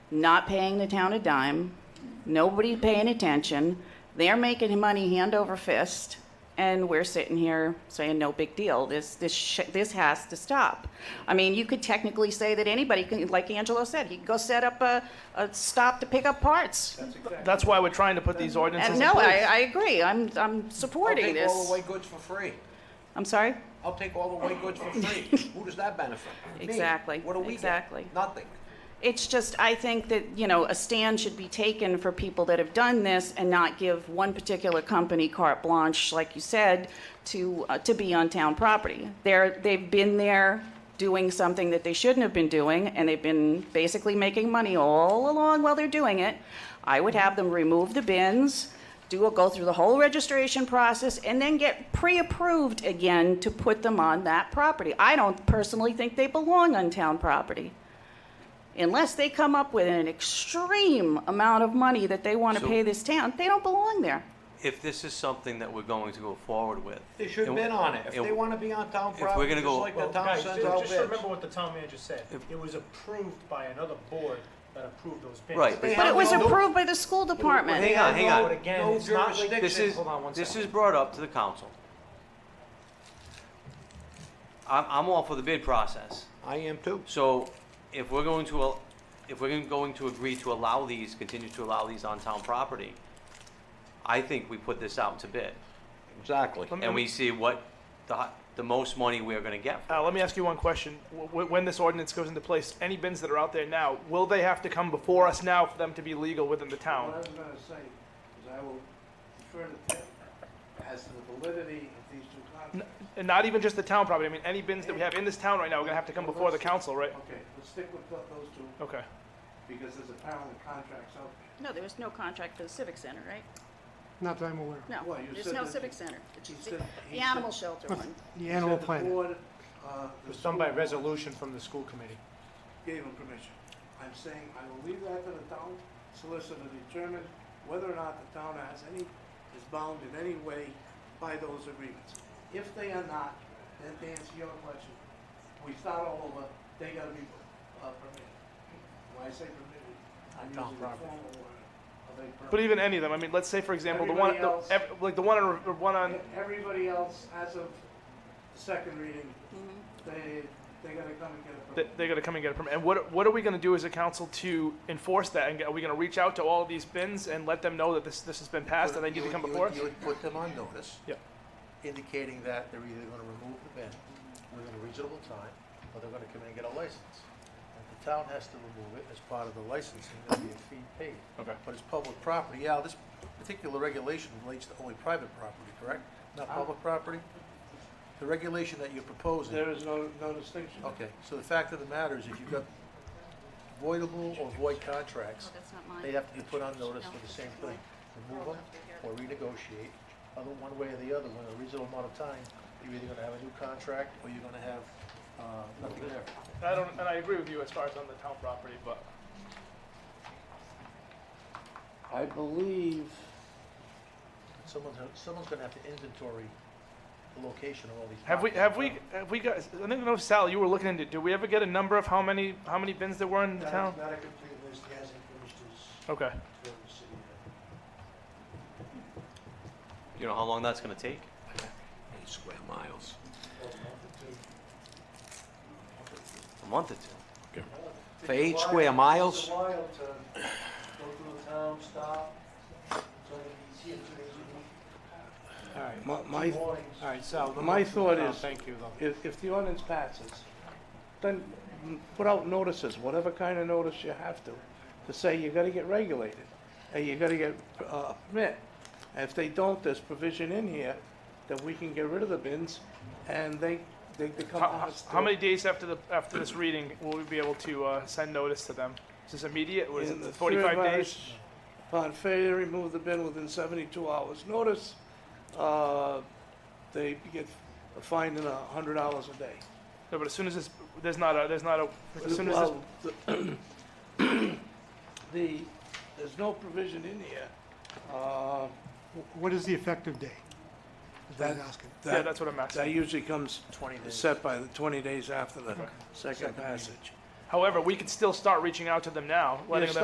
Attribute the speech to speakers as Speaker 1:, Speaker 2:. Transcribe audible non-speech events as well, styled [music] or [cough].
Speaker 1: not paying the town a dime, nobody paying attention. They're making money hand over fist, and we're sitting here saying, no big deal. This, this, sh- this has to stop. I mean, you could technically say that anybody can, like Angelo said, he could go set up a, a stop to pick up parts.
Speaker 2: That's why we're trying to put these ordinances
Speaker 1: And
Speaker 2: in
Speaker 1: Uh, no,
Speaker 2: place.
Speaker 1: I, I agree. I'm, I'm
Speaker 3: I'll
Speaker 1: supporting
Speaker 3: take all the
Speaker 1: this.
Speaker 3: white goods for free.
Speaker 1: I'm sorry?
Speaker 3: I'll take all the white goods for
Speaker 1: [laughs]
Speaker 3: free. Who does that benefit? Me.
Speaker 1: Exactly,
Speaker 3: What do we get?
Speaker 1: exactly.
Speaker 3: Nothing.
Speaker 1: It's just, I think that, you know, a stand should be taken for people that have done this and not give one particular company carte blanche, like you said, to, uh, to be on town property. They're, they've been there doing something that they shouldn't have been doing, and they've been basically making money all along while they're doing it. I would have them remove the bins, do a, go through the whole registration process, and then get pre-approved again to put them on that property. I don't personally think they belong on town property unless they come up with an extreme amount of money that they want to
Speaker 4: So-
Speaker 1: pay this town, they don't belong there.
Speaker 4: If this is something that we're going to go forward with.
Speaker 3: They should have
Speaker 4: and-
Speaker 3: been on it. If
Speaker 4: and-
Speaker 3: they want to be on town
Speaker 4: we're
Speaker 3: property,
Speaker 4: gonna
Speaker 3: just
Speaker 4: go-
Speaker 3: like the
Speaker 5: Well,
Speaker 3: town
Speaker 5: guys,
Speaker 3: sends out
Speaker 5: just
Speaker 3: bids.
Speaker 5: remember what the town manager said.
Speaker 4: If-
Speaker 5: It was approved by another board that approved those bins.
Speaker 4: Right,
Speaker 3: They
Speaker 1: But it
Speaker 3: have
Speaker 1: was
Speaker 3: no-
Speaker 1: approved by the school department.
Speaker 4: Hang on,
Speaker 5: They
Speaker 4: hang
Speaker 5: had no-
Speaker 4: on.
Speaker 5: but Again,
Speaker 3: No
Speaker 5: it's not like.
Speaker 3: jurisdiction.
Speaker 4: This is,
Speaker 5: Hold on one
Speaker 4: this
Speaker 5: second.
Speaker 4: is brought up to the council. I'm, I'm all for the bid process.
Speaker 3: I am too.
Speaker 4: So if we're going to, al- if we're going to agree to allow these, continue to allow these on town property, I think we put this out to bid
Speaker 3: Exactly.
Speaker 4: and we see what the, hi- the most money we're gonna get.
Speaker 2: Uh, let me ask you one question. W- w- when this ordinance goes into place, any bins that are out there now, will they have to come before us now for them to be legal within the
Speaker 6: What I
Speaker 2: town?
Speaker 6: was gonna say is I will defer to Ted as to the validity of these two
Speaker 2: N-
Speaker 6: contracts.
Speaker 2: and not even just the town property. I mean, any bins that we have in this town right now, we're gonna have to come before the council, right?
Speaker 6: Okay, let's stick with tho- those two,
Speaker 2: Okay.
Speaker 6: because there's a pound of contracts out there.
Speaker 1: No, there was no contract for the civic center, right?
Speaker 7: Not that I'm aware of.
Speaker 1: No,
Speaker 6: Well, you
Speaker 1: there's
Speaker 6: said
Speaker 1: no
Speaker 6: that-
Speaker 1: civic center. It's
Speaker 6: you
Speaker 1: the-
Speaker 6: said-
Speaker 1: The
Speaker 6: he
Speaker 1: animal
Speaker 6: [laughs]
Speaker 1: shelter one.
Speaker 7: The animal
Speaker 6: The
Speaker 7: planet.
Speaker 6: board, uh,
Speaker 5: It
Speaker 6: the
Speaker 5: was done by
Speaker 6: school board
Speaker 5: resolution from the school committee.
Speaker 6: Gave him permission. I'm saying I will leave that to the town solicitor to determine whether or not the town has any, is bound in any way by those agreements. If they are not, then to answer your question, we start all over, they gotta be uh, permitted. When I say permitted, I'm
Speaker 5: Town
Speaker 6: using the
Speaker 5: property.
Speaker 6: formal word of a permit.
Speaker 2: But even any of them. I mean, let's say for example, the one,
Speaker 6: Everybody
Speaker 2: the,
Speaker 6: else.
Speaker 2: ev- like the one on, the one on.
Speaker 6: E, Everybody else, as of the second reading, they, they gotta come and get
Speaker 2: th-
Speaker 6: a permit.
Speaker 2: They're gonna come and get a permit. And what what are we gonna do as a council to enforce that? And are we gonna reach out to all of these bins and let them know that this this has been passed and they need to come before us?
Speaker 8: You would put them on notice.
Speaker 2: Yeah.
Speaker 8: Indicating that they're either gonna remove the bin within a reasonable time, or they're gonna come in and get a license. And the town has to remove it as part of the licensing, there'll be a fee paid.
Speaker 2: Okay.
Speaker 8: But it's public property, yeah, this particular regulation relates to only private property, correct? Not public property? The regulation that you're proposing.
Speaker 6: There is no, no distinction.
Speaker 8: Okay, so the fact of the matter is, if you've got voidable or void contracts,
Speaker 1: Oh, that's not mine.
Speaker 8: they have to be put on notice for the same thing. Remove them or renegotiate, other, one way or the other, within a reasonable amount of time, you're either gonna have a new contract, or you're gonna have, uh, nothing there.
Speaker 2: I don't, and I agree with you as far as on the town property, but.
Speaker 6: I believe.
Speaker 8: Someone's, someone's gonna have to inventory the location of all these.
Speaker 2: Have we,
Speaker 8: properties.
Speaker 2: have we, have we got, I think, no, Sal, you were looking into, did we ever get a number of how many, how many bins there were in the town?
Speaker 6: Not a complete list, he hasn't finished his
Speaker 2: Okay.
Speaker 6: tour of the city yet.
Speaker 4: You know how long that's gonna take?
Speaker 3: Eight square miles.
Speaker 4: A month or two.
Speaker 3: For eight square miles?
Speaker 6: It's a while to go through the town, stop, so that he's here, so he's
Speaker 5: All right,
Speaker 6: in the mornings.
Speaker 5: all right, Sal.
Speaker 6: My thought is-
Speaker 5: Thank you, though.
Speaker 6: If, if the ordinance passes, then mm, put out notices, whatever kind of notice you have to, to say you gotta get regulated, and you gotta get uh, a permit. And if they don't, there's provision in here that we can get rid of the bins, and they, they become
Speaker 2: How,
Speaker 6: honest.
Speaker 2: how many days after the, after this reading will we be able to, uh, send notice to them? Is this immediate, What is
Speaker 6: In
Speaker 2: it
Speaker 6: the
Speaker 2: forty-five
Speaker 6: third
Speaker 2: days?
Speaker 6: verse, Upon failure to remove the bin within seventy-two hours notice, uh, they get a fine in a hundred dollars a day.
Speaker 2: No, but as soon as this, there's not a, there's not a, as soon as this,
Speaker 6: Well, The, there's no provision in here, uh,
Speaker 7: Wh- What is the effective date? Is what I'm
Speaker 6: That-
Speaker 7: asking.
Speaker 2: yeah,
Speaker 6: that,
Speaker 2: that's what I'm asking.
Speaker 6: that usually comes
Speaker 8: Twenty days.
Speaker 6: set by the twenty days after the second
Speaker 8: Second reading.
Speaker 6: passage.
Speaker 2: However, we could still start reaching out to them now, letting
Speaker 6: Yes,
Speaker 2: them